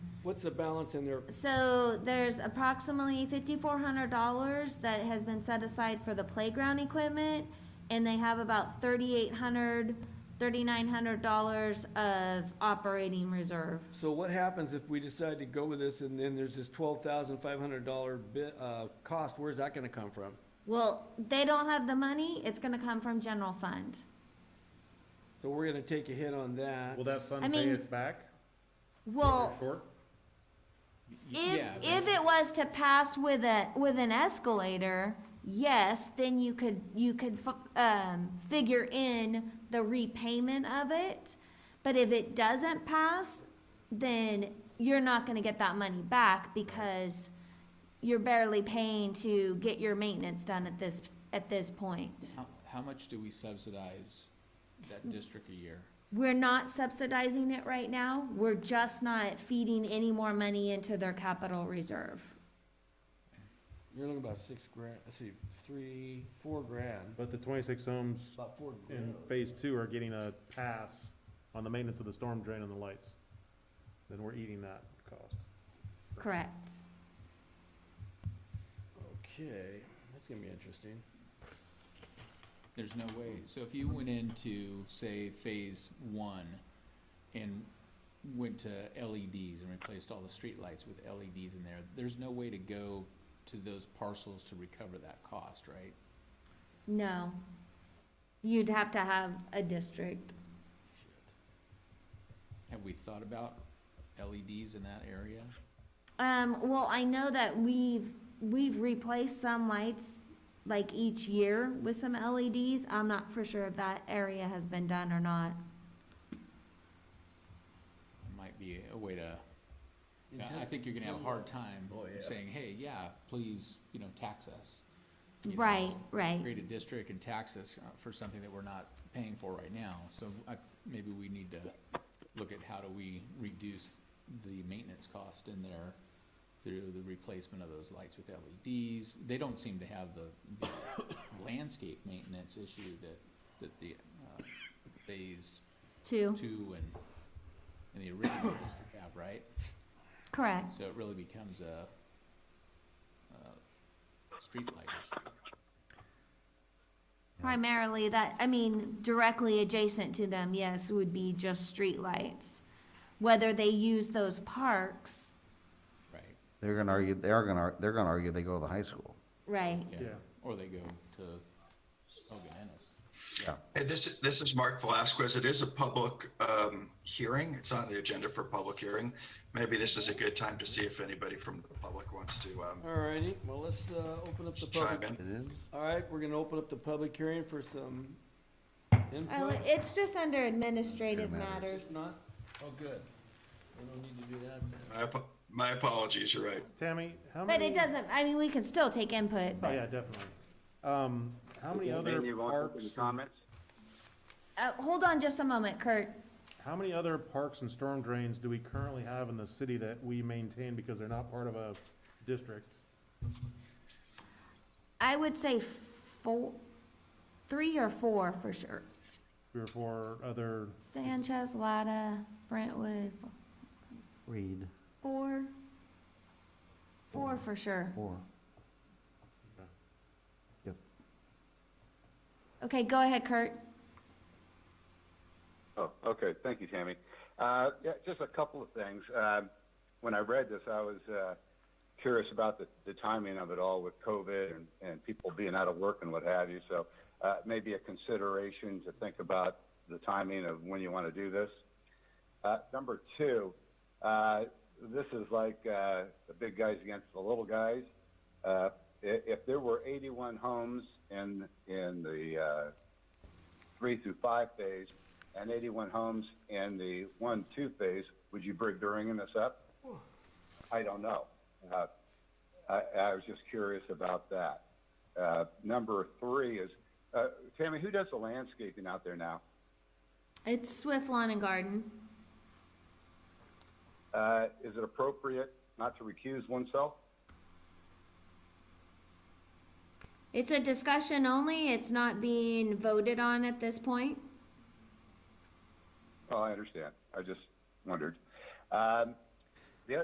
What's the balance in there? So there's approximately fifty-four hundred dollars that has been set aside for the playground equipment, and they have about thirty-eight hundred, thirty-nine hundred dollars of operating reserve. So what happens if we decide to go with this and then there's this twelve thousand five hundred dollar bit, uh, cost? Where's that gonna come from? Well, they don't have the money, it's gonna come from general fund. So we're gonna take a hit on that. Will that I fund pay mean, us back? if we're Well, Short? if, Yeah, but- if it was to pass with a, with an escalator, yes, then you could, you could, fu- um, figure in the repayment of it. But if it doesn't pass, then you're not gonna get that money back because you're barely paying to get your maintenance done at this, at this point. How, how much do we subsidize that district a year? We're not subsidizing it right now, we're just not feeding any more money into their capital reserve. You're looking about six grand, let's see, three, four grand, But the twenty-six homes about four in grand. phase two are getting a pass on the maintenance of the storm drain and the lights. Then we're eating that cost. Correct. Okay, that's gonna be interesting. There's no way, so if you went into, say, phase one and went to LEDs and replaced all the streetlights with LEDs in there, there's no way to go to those parcels to recover that cost, right? No. You'd have to have a district. Have we thought about LEDs in that area? Um, well, I know that we've, we've replaced some lights like each year with some LEDs. I'm not for sure if that area has been done or not. Might be a way to, I- I Intent- think you're gonna have a hard time Oh, yeah. saying, hey, yeah, please, you know, tax us. you know, Right, right. create a district and tax us uh, for something that we're not paying for right now. So I, maybe we need to look at how do we reduce the maintenance cost in there through the replacement of those lights with LEDs. They don't seem to have the, the landscape maintenance issue that, that the, uh, phase Two, two and, and the original district have, right? correct. So it really becomes a, uh, streetlight issue. Primarily that, I mean, directly adjacent to them, yes, would be just streetlights. Whether they use those parks, Right. They're gonna argue, they are gonna, ar- they're gonna argue they go to the high school. right. Yeah, Yeah. or they go to oh, Hogan Ennis. Hey, this, this is Mark Velasquez. It is a public um, hearing. It's on the agenda for public hearing. Maybe this is a good time to see if anybody from the public wants to um, Alrighty, well, let's, uh, open up the chime public. in. It is? Alright, we're gonna open up the public hearing for some Oh, input. it's just under administrative Good matters. matters. If not, oh, good. We don't need to do that then. My ap- My apologies, you're right. Tammy, how But many? it doesn't, I mean, we can still take input, Oh, but- yeah, definitely. Um, how many other parks, comments? uh, hold on just a moment, Kurt. how many other parks and storm drains do we currently have in the city that we maintain because they're not part of a district? I would say four, three or four for sure. Three or four other, Sanchez, Lada, Brentwood, Read four. Four for sure. four. Okay, go ahead, Kurt. Oh, okay, thank you, Tammy. Uh, yeah, just a couple of things. Um, when I read this, I was, uh, curious about the, the timing of it all with COVID and, and people being out of work and what have you. So, uh, maybe a consideration to think about the timing of when you want to do this. Uh, number two, uh, this is like, uh, the big guys against the little guys. Uh, if, if there were 81 homes in, in the, uh, three through five phase and 81 homes in the one, two phase, would you bring bringing this up? I don't know. Uh, I, I was just curious about that. Uh, number three is, uh, Tammy, who does the landscaping out there now? It's Swift Lawn and Garden. Uh, is it appropriate not to recuse oneself? It's a discussion only, it's not being voted on at this point. Oh, I understand. I just wondered. Um,